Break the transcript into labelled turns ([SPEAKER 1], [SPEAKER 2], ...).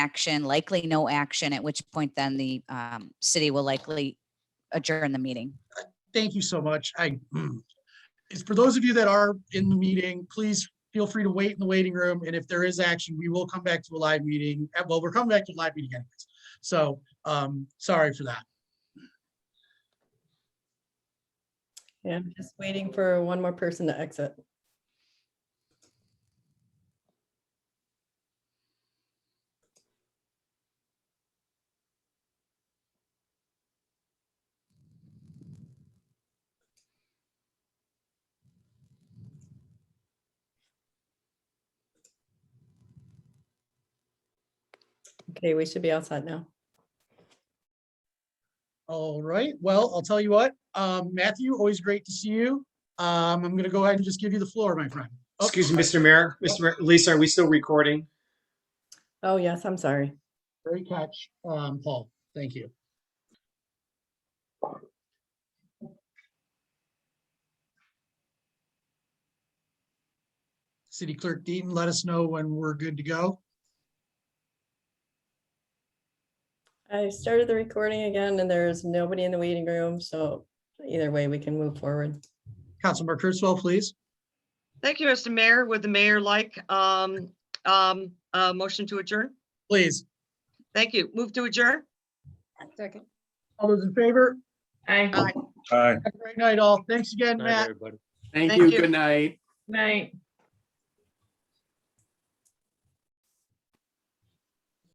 [SPEAKER 1] action, likely no action, at which point then the um, city will likely adjourn the meeting.
[SPEAKER 2] thank you so much. I, it's for those of you that are in the meeting, please feel free to wait in the waiting room. And if there is action, we will come back to a live meeting. Uh, Well, we're coming back to a live meeting anyways. So, um, sorry for that.
[SPEAKER 3] Yeah, I'm just waiting for one more person to exit. Okay, we should be outside now.
[SPEAKER 2] All right. Well, I'll tell you what, um, Matthew, always great to see you. Um, I'm gonna go ahead and just give you the floor, my friend. Oh,
[SPEAKER 4] Excuse me, Mr. Mayor, Mr. Mayor, Lisa, are we still recording?
[SPEAKER 3] Oh, yes, I'm sorry.
[SPEAKER 2] Great catch, um, Paul. Thank you. City Clerk Deaton, let us know when we're good to go.
[SPEAKER 3] I started the recording again and there's nobody in the waiting room, so either way, we can move forward.
[SPEAKER 2] Councilmember Kurzweil, please.
[SPEAKER 5] Thank you, Mr. Mayor. Would the mayor like um um a motion to adjourn?
[SPEAKER 2] Please.
[SPEAKER 5] Thank you. Move to adjourn?
[SPEAKER 6] Second.
[SPEAKER 2] All those in favor?
[SPEAKER 6] Aye.
[SPEAKER 5] Aye.
[SPEAKER 2] Have a Great night all. Thanks again, Matt.
[SPEAKER 5] Thank you.
[SPEAKER 6] Night.